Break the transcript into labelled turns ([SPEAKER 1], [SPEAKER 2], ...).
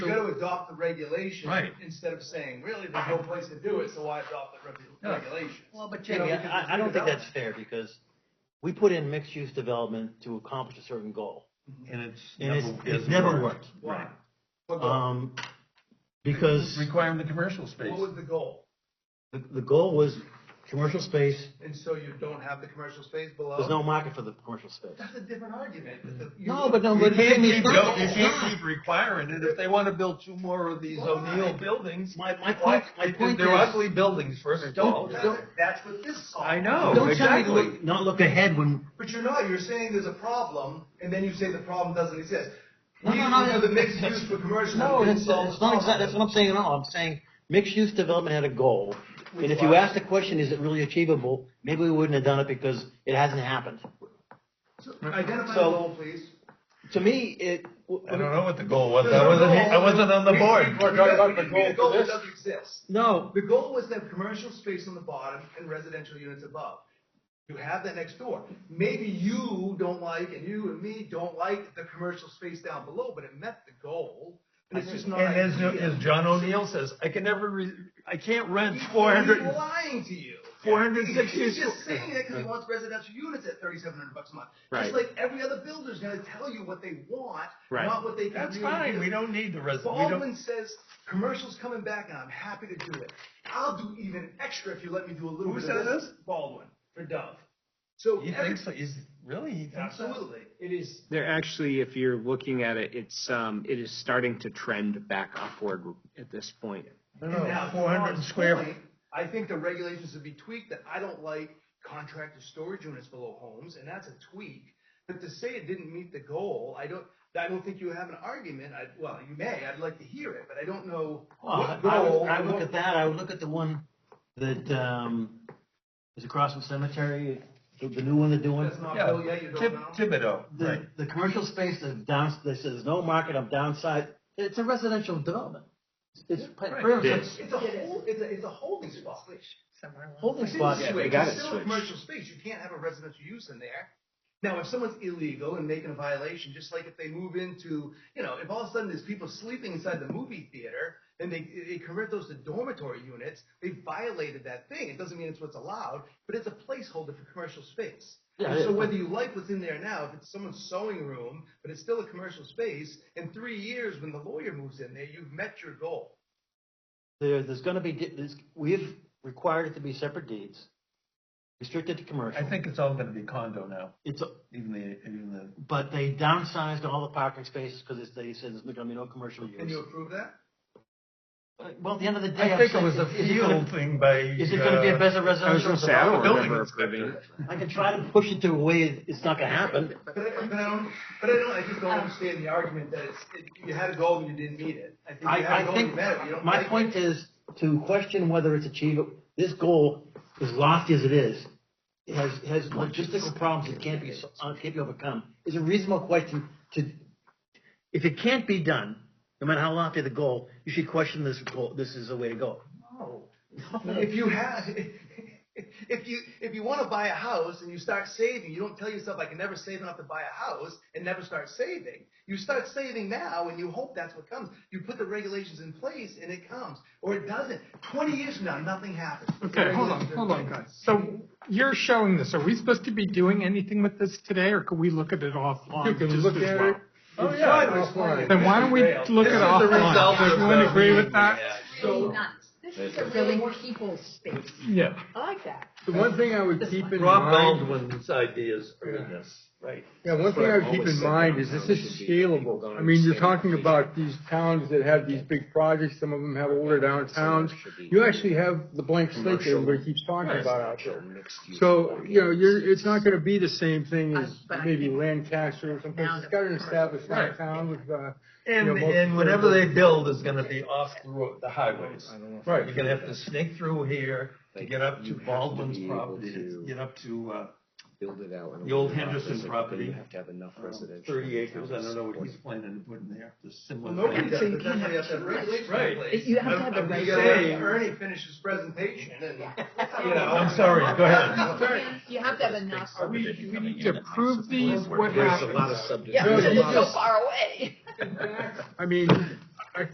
[SPEAKER 1] adopt the regulation.
[SPEAKER 2] Right.
[SPEAKER 1] Instead of saying, really, there's no place to do it, so why adopt the
[SPEAKER 2] No.
[SPEAKER 1] reg- regulations?
[SPEAKER 2] Well, but
[SPEAKER 1] You know,
[SPEAKER 2] Jamie,
[SPEAKER 1] because
[SPEAKER 3] I, I don't think that's
[SPEAKER 1] redevelopment.
[SPEAKER 3] fair because we put in mixed-use development to accomplish a certain goal.
[SPEAKER 2] and it's
[SPEAKER 3] And it's,
[SPEAKER 2] never,
[SPEAKER 3] it's
[SPEAKER 2] hasn't
[SPEAKER 3] never worked.
[SPEAKER 1] Why? What goal?
[SPEAKER 3] Um, because
[SPEAKER 2] Requiring the commercial space.
[SPEAKER 1] What was the goal?
[SPEAKER 3] the, the goal was commercial space,
[SPEAKER 1] And so you don't have the commercial space below?
[SPEAKER 3] there's no market for the commercial space.
[SPEAKER 1] That's a different argument. but the- you-
[SPEAKER 3] No, but no,
[SPEAKER 2] You
[SPEAKER 3] but
[SPEAKER 2] can't
[SPEAKER 3] Jamie,
[SPEAKER 2] keep, go- you
[SPEAKER 3] it's
[SPEAKER 2] can't
[SPEAKER 3] not.
[SPEAKER 2] keep requiring it. If they want to build two more of these O'Neill buildings,
[SPEAKER 3] My, my point,
[SPEAKER 2] why,
[SPEAKER 3] my point
[SPEAKER 2] they're
[SPEAKER 3] is.
[SPEAKER 2] ugly buildings, first of
[SPEAKER 3] Don't-
[SPEAKER 2] all.
[SPEAKER 1] That's that's what this solves.
[SPEAKER 2] I know.
[SPEAKER 3] Don't tell me to
[SPEAKER 2] exactly.
[SPEAKER 3] look- not look ahead when,
[SPEAKER 1] But you're not, you're saying there's a problem, and then you say the problem doesn't exist.
[SPEAKER 3] No,
[SPEAKER 1] We
[SPEAKER 3] no, no,
[SPEAKER 1] have the
[SPEAKER 3] no.
[SPEAKER 1] mixed use for commercial.
[SPEAKER 3] no,
[SPEAKER 1] we
[SPEAKER 3] it's, it's
[SPEAKER 1] solve the
[SPEAKER 3] not exactly, that's
[SPEAKER 1] problem.
[SPEAKER 3] what I'm saying at all. I'm saying mixed-use development had a goal. And if you ask the question, is it really achievable? Maybe we wouldn't have done it because it hasn't happened.
[SPEAKER 1] So, Identify the
[SPEAKER 3] So-
[SPEAKER 1] goal, please.
[SPEAKER 3] To me, it.
[SPEAKER 2] I don't know what the goal was.
[SPEAKER 1] No,
[SPEAKER 2] I
[SPEAKER 1] no,
[SPEAKER 2] wasn't,
[SPEAKER 1] no,
[SPEAKER 2] I wasn't on the
[SPEAKER 1] we-
[SPEAKER 2] board.
[SPEAKER 1] we- we- we- The goal that doesn't exist.
[SPEAKER 3] No,
[SPEAKER 1] The goal was to have commercial space on the bottom and residential units above. You have that next door. Maybe you don't like, and you and me don't like the commercial space down below, but it met the goal, and it's just not.
[SPEAKER 2] And as,
[SPEAKER 1] ideal.
[SPEAKER 2] as John O'Neill says, I can never, re- I can't rent
[SPEAKER 1] He's
[SPEAKER 2] four hundred.
[SPEAKER 1] lying to you.
[SPEAKER 2] 460
[SPEAKER 1] He's just
[SPEAKER 2] squ-
[SPEAKER 1] saying that because he wants residential units at thirty-seven hundred bucks a month.
[SPEAKER 3] Right.
[SPEAKER 1] Just like every other builder's gonna tell you what they want,
[SPEAKER 3] Right.
[SPEAKER 1] not what they can
[SPEAKER 2] That's
[SPEAKER 1] really
[SPEAKER 2] fine.
[SPEAKER 1] do.
[SPEAKER 2] We don't need the resident. We don't.
[SPEAKER 1] Baldwin says, commercial's coming back and I'm happy to do it. I'll do even extra if you let me do a little
[SPEAKER 2] Who
[SPEAKER 1] bit of this.
[SPEAKER 2] said this?
[SPEAKER 1] Baldwin, for Dove. So.
[SPEAKER 2] He
[SPEAKER 1] every-
[SPEAKER 2] thinks so. He's really. He thinks so?
[SPEAKER 1] Absolutely, it is.
[SPEAKER 4] They're actually, if you're looking at it, it's, um, it is starting to trend back upward at this point.
[SPEAKER 2] I
[SPEAKER 1] And
[SPEAKER 2] don't know.
[SPEAKER 1] now,
[SPEAKER 2] Four hundred
[SPEAKER 1] John's
[SPEAKER 2] square.
[SPEAKER 1] point, I think the regulations would be tweaked that I don't like contracted storage units below homes, and that's a tweak. But to say it didn't meet the goal, I don't, I don't think you have an argument. I, well, you may, I'd like to hear it, but I don't know
[SPEAKER 3] Well,
[SPEAKER 1] what
[SPEAKER 3] I
[SPEAKER 1] goal.
[SPEAKER 3] would, I would
[SPEAKER 1] what-
[SPEAKER 3] look at that, I would look at the one that, um, is across from Cemetery, the, the new one they're doing.
[SPEAKER 1] That's not
[SPEAKER 2] Yeah.
[SPEAKER 1] Bill yet, Oh, you don't
[SPEAKER 2] Tib-
[SPEAKER 1] know.
[SPEAKER 2] Thibodeau. Right.
[SPEAKER 3] The, the commercial space that's down, that says no market of downside, it's a residential development. It's pre-
[SPEAKER 2] Right.
[SPEAKER 3] pretty
[SPEAKER 2] It
[SPEAKER 3] much
[SPEAKER 2] is.
[SPEAKER 1] It's a whole, it's a, it's a holding spot.
[SPEAKER 3] a holding
[SPEAKER 1] It's in
[SPEAKER 3] spot.
[SPEAKER 1] the
[SPEAKER 4] we
[SPEAKER 1] way.
[SPEAKER 4] got
[SPEAKER 1] It's
[SPEAKER 4] it
[SPEAKER 1] still a
[SPEAKER 4] switched.
[SPEAKER 1] commercial space, you can't have a residential use in there. Now, if someone's illegal and making a violation, just like if they move into, you know, if all of a sudden there's people sleeping inside the movie theater and they, they convert those to dormitory units, they violated that thing. It doesn't mean it's what's allowed, but it's a placeholder for commercial space.
[SPEAKER 3] Yeah,
[SPEAKER 1] And so
[SPEAKER 3] yeah.
[SPEAKER 1] whether you like what's in there now, if it's someone's sewing room, but it's still a commercial space, in three years when the lawyer moves in there, you've met your goal.
[SPEAKER 3] There, there's gonna be, di- there's, we've required it to be separate deeds, restricted to commercial.
[SPEAKER 2] I think it's all going to be condo now.
[SPEAKER 3] It's, a-
[SPEAKER 2] Even the even the
[SPEAKER 3] but they downsized all the parking spaces because they said there's gonna be no commercial
[SPEAKER 1] Can you
[SPEAKER 3] use.
[SPEAKER 1] approve that?
[SPEAKER 3] Uh, Well, at the end of the day.
[SPEAKER 2] I
[SPEAKER 3] I'm
[SPEAKER 2] think it
[SPEAKER 3] saying,
[SPEAKER 2] was a
[SPEAKER 3] is it gonna-
[SPEAKER 2] field thing by.
[SPEAKER 3] Is it gonna be
[SPEAKER 2] Uh,
[SPEAKER 3] a better
[SPEAKER 4] I was
[SPEAKER 3] residential
[SPEAKER 4] gonna say, I don't
[SPEAKER 3] development?
[SPEAKER 4] remember approving.
[SPEAKER 3] I can try to push it to a way it's not gonna happen.
[SPEAKER 1] But I, but I don't, but I don't, I just don't understand the argument that it's, it- you had a goal and you didn't meet it. I think you had
[SPEAKER 3] I,
[SPEAKER 1] a
[SPEAKER 3] I
[SPEAKER 1] goal and you
[SPEAKER 3] think,
[SPEAKER 1] met it, you don't
[SPEAKER 3] my
[SPEAKER 1] like
[SPEAKER 3] point
[SPEAKER 1] it.
[SPEAKER 3] is to question whether it's achievable, this goal, as lofty as it is, it has, has logistical problems that can't be, so- uh, can't be overcome, is a reasonable question to, if it can't be done, no matter how lofty the goal, you should question this goal, this is the way to go.
[SPEAKER 1] No. If you had, if you, if you wanna buy a house and you start saving, you don't tell yourself, I can never save enough to buy a house and never start saving. You start saving now and you hope that's what comes. You put the regulations in place and it comes, or it doesn't. Twenty years from now, nothing happens.
[SPEAKER 5] Okay, hold on, hold on, guys. So you're showing this. Are we supposed to be doing anything with this today, or could we look at it offline?
[SPEAKER 6] You can
[SPEAKER 5] just
[SPEAKER 6] look
[SPEAKER 5] as
[SPEAKER 6] at
[SPEAKER 5] well?
[SPEAKER 6] it.
[SPEAKER 2] Oh yeah.
[SPEAKER 5] Then why don't we look at it offline? Does everyone agree with that?
[SPEAKER 7] really nice. This is a really people space.
[SPEAKER 5] Yeah.
[SPEAKER 7] I like that.
[SPEAKER 6] The one thing I would keep in
[SPEAKER 2] Rob
[SPEAKER 6] mind,
[SPEAKER 2] Baldwin's ideas are in this. Right.
[SPEAKER 6] yeah, one thing I would keep in mind is this is scalable. I mean, you're talking about these towns that have these big projects, some of them have older downtowns. You actually have the blank slate that everybody keeps talking about out there. So, you know, you're, it's not gonna be the same thing as maybe Lancaster or someplace. It's got an established downtown with, uh,
[SPEAKER 2] And
[SPEAKER 6] You know, most-
[SPEAKER 2] and whatever they build is going to be off the road, the highways.
[SPEAKER 6] Right.
[SPEAKER 2] You're going to have to snake through here to get up to
[SPEAKER 8] You have to be
[SPEAKER 2] Baldwin's
[SPEAKER 8] able
[SPEAKER 2] property,
[SPEAKER 8] to-
[SPEAKER 2] to get up to uh,
[SPEAKER 8] build it out. in a
[SPEAKER 2] The old
[SPEAKER 8] way that
[SPEAKER 2] Henderson
[SPEAKER 8] there's a-
[SPEAKER 2] property,
[SPEAKER 8] You have to have enough
[SPEAKER 4] Oh,
[SPEAKER 8] residential.
[SPEAKER 2] thirty acres. I
[SPEAKER 8] accounts
[SPEAKER 2] don't know what
[SPEAKER 8] for
[SPEAKER 2] he's planning to put in there. The similar.
[SPEAKER 1] Well, nobody
[SPEAKER 2] thing.
[SPEAKER 1] does, but that's why you have to have regulations in
[SPEAKER 2] Right.
[SPEAKER 1] place.
[SPEAKER 7] You have to have the
[SPEAKER 1] I'm- I'm just
[SPEAKER 2] regulations.
[SPEAKER 1] saying, Ernie finished his presentation and, you know.
[SPEAKER 2] I'm sorry. Go ahead.
[SPEAKER 7] You have to have enough.
[SPEAKER 5] Are we, we need to approve these? What
[SPEAKER 8] There's a
[SPEAKER 5] happens?
[SPEAKER 8] lot of
[SPEAKER 7] Yeah,
[SPEAKER 8] subdivisions.
[SPEAKER 7] because it's so far away.
[SPEAKER 6] I mean,